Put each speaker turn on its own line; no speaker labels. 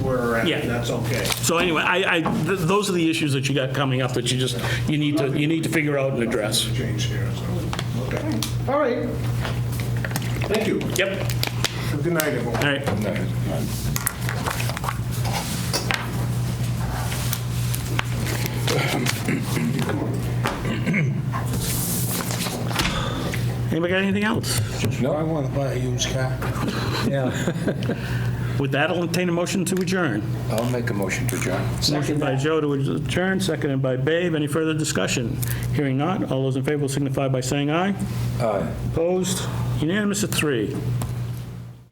right?
Yeah.
That's okay.
So anyway, I, I, th- those are the issues that you got coming up that you just, you need to, you need to figure out and address.
Change here, so, okay. All right. Thank you.
Yep,
Good night, everyone.
all right. Anybody got anything else?
No, I want to buy a used car.
Yeah.
With that, I'll entertain a motion to adjourn.
I'll make a motion to adjourn.
Motion by Joe to adjourn, seconded by Babe. Any further discussion? Hearing none, all those in favor will signify by saying aye. Aye. Opposed? Unanimous at three.